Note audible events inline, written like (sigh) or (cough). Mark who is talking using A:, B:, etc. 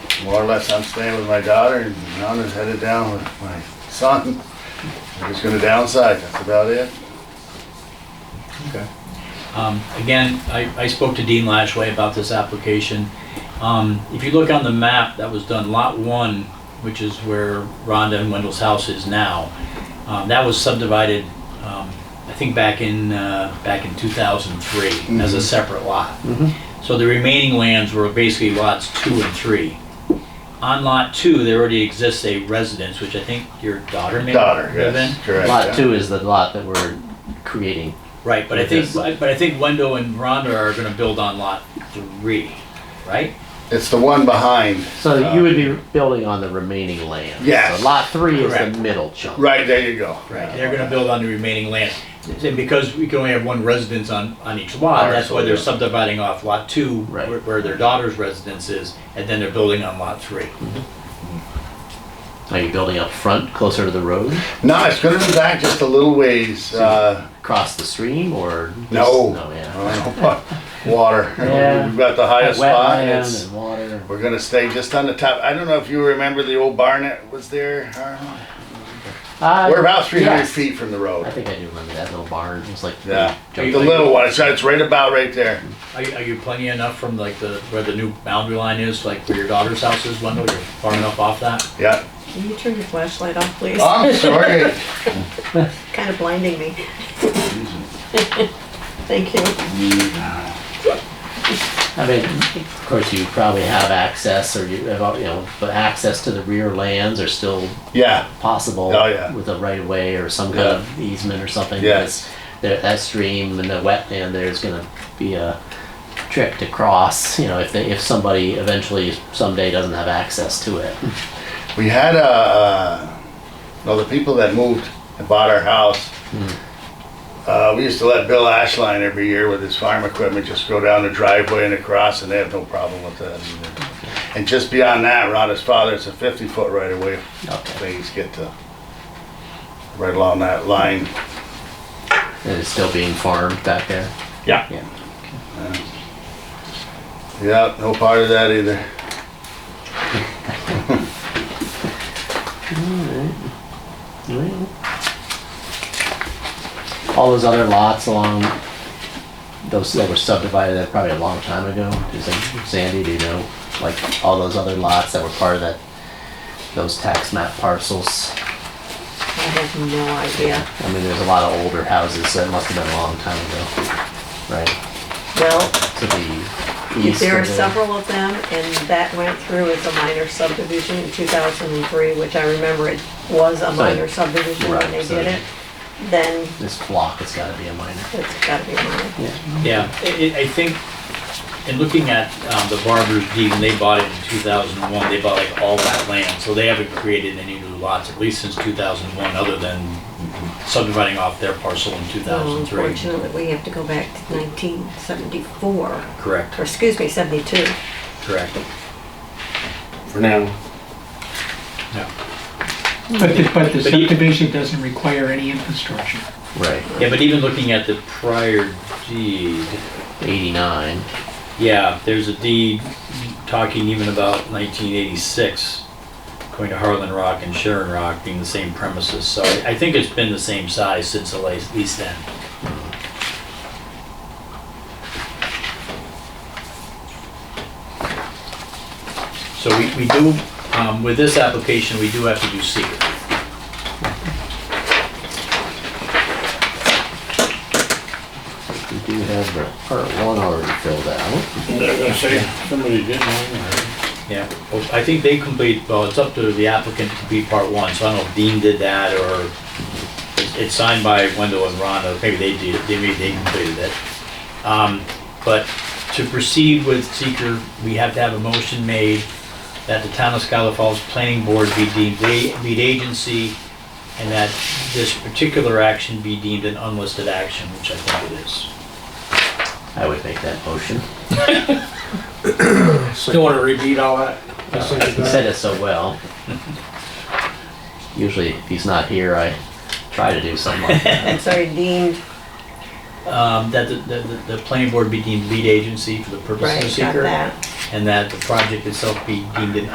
A: more or less, I'm staying with my daughter and Rhonda's headed down with my son. We're just gonna downsize, that's about it.
B: Okay.
C: Um, Again, I I spoke to Dean Lashway about this application. Um, If you look on the map that was done, Lot 1, which is where Rhonda and Wendell's house is now, um, that was subdivided, um, I think back in, uh, back in 2003
A: Mm-hmm.
C: as a separate lot. So the remaining lands were basically lots 2 and 3. On Lot 2, there already exists a residence, which I think your daughter may
A: Daughter,
C: live in.
A: yes, correct. yeah.
D: Lot two is the lot that we're creating.
C: Right, but I
D: With
C: think,
D: this.
C: but I think Wendell and Rhonda are gonna build on lot three, right?
A: It's the one behind,
D: So you would be building on the remaining land.
A: Uh, Yes.
D: So lot three is
C: Correct.
D: the middle chunk.
A: right, there you go.
C: Right, they're gonna build on the remaining land. And because we can only have one residence on, on each lot, that's why they're
D: Parcel,
C: subdividing off lot two,
D: Right.
C: where where their daughter's residence is, and then they're building on lot three.
D: Are you building up front, closer to the road,
A: No, it's gonna be back just a little ways, uh,
D: across the stream, or?
A: No. Uh,
D: No, yeah.
A: I don't know, water.
D: (laughs) Yeah.
A: We've got the highest spot,
D: Wetland
A: it's,
D: and water.
A: we're gonna stay just on the top. I don't know if you remember the old barn that was there, Harlan?
D: Uh,
A: We're about three hundred
D: yes.
A: feet from the
D: I
A: road.
D: think I do remember that little barn. It was like.
A: Yeah, the
C: Are you-
A: little one, it's, it's right about right there.
C: Are you, are you plenty enough from like the, where the new boundary line is, like where your daughter's house is, Wendell, you're far enough off that?
A: Yeah,
E: Can you turn your flashlight off, please?
A: I'm sorry.
E: Kind of blinding me. (laughs) Thank you.
D: I mean, of course, you probably have access, or you have, you know, but access to the rear lands are still
A: Yeah,
D: possible.
A: Oh, yeah.
D: With a right of way or some kind
A: Yeah.
D: of easement or something.
A: Yes.
D: because That, that stream and the wetland there is gonna be a trick to cross, you know, if they, if somebody eventually someday doesn't have access to it.
A: we had a, uh, no, the people that moved and bought our house. Uh, we used to let Bill Ashline every year with his farm equipment just go down the driveway and across, and they have no problem with that. And just beyond that, Rhonda's father, it's a fifty foot right away.
D: Okay.
A: Things get to right along that line.
D: And it's still being farmed back there.
A: Yeah.
D: Yeah.
A: Yeah, no part of that either. Mm-hmm.
D: Well, All those other lots along, those that were subdivided, that probably a long time ago, is it- Sandy, do you know? Like, all those other lots that were part of that, those tax map parcels?
E: I have no idea.
D: I mean, there's a lot of older houses, so it must have been a long time ago, right?
E: Well,
D: To the east.
E: there are
D: of the-
E: several of them, and that went through as a minor subdivision in 2003, which I remember it was a minor subdivision
D: right,
E: when they
D: so
E: did
D: they-
E: it. Then
D: This block has gotta be a minor.
E: it's gotta be minor.
C: Yeah, I, I- I think, in looking at um, the Barber's deed, when they bought it in 2001, they bought like all that land, so they haven't created any new lots, at least since 2001, other than subdividing off their parcel in
E: So
C: 2003.
E: Unfortunately, we have to go back to 1974, or
C: Correct,
E: excuse me, 72.
C: correct.
F: for now.
G: But the, but the
C: But you-
G: subdivision doesn't require any infrastructure.
D: Right.
C: Yeah, but even looking at the prior deed,
D: Eighty-nine.
C: yeah, there's a deed talking even about 1986, going to Harlan Rock and Sharon Rock being the same premises, so I I think it's been the same size since at least then. So we, we do, um, with this application, we do have to do secret.
D: We do have the part one already filled out.
F: They're gonna say somebody didn't want it.
C: Yeah, well, I think they complete, well, it's up to the applicant to complete part one, so I don't know if Dean did that, or it's- it's signed by Wendell and Rhonda, maybe they did, they- maybe they completed it. Um, But to proceed with seeker, we have to have a motion made that the town of Scholar Falls Planning Board be deemed a- lead agency, and that this particular action be deemed an unlisted action, which I think it is.
D: I would make that motion.
F: Still wanna repeat all that?
D: He said it so well. Usually, if he's not here, I try to do something like that.
E: I'm sorry, deemed,
C: Um, That the, the- the, the planning board be deemed lead agency for the purpose of
E: right,
C: the
E: got
C: seeker.
E: that.
C: and that the project itself be deemed an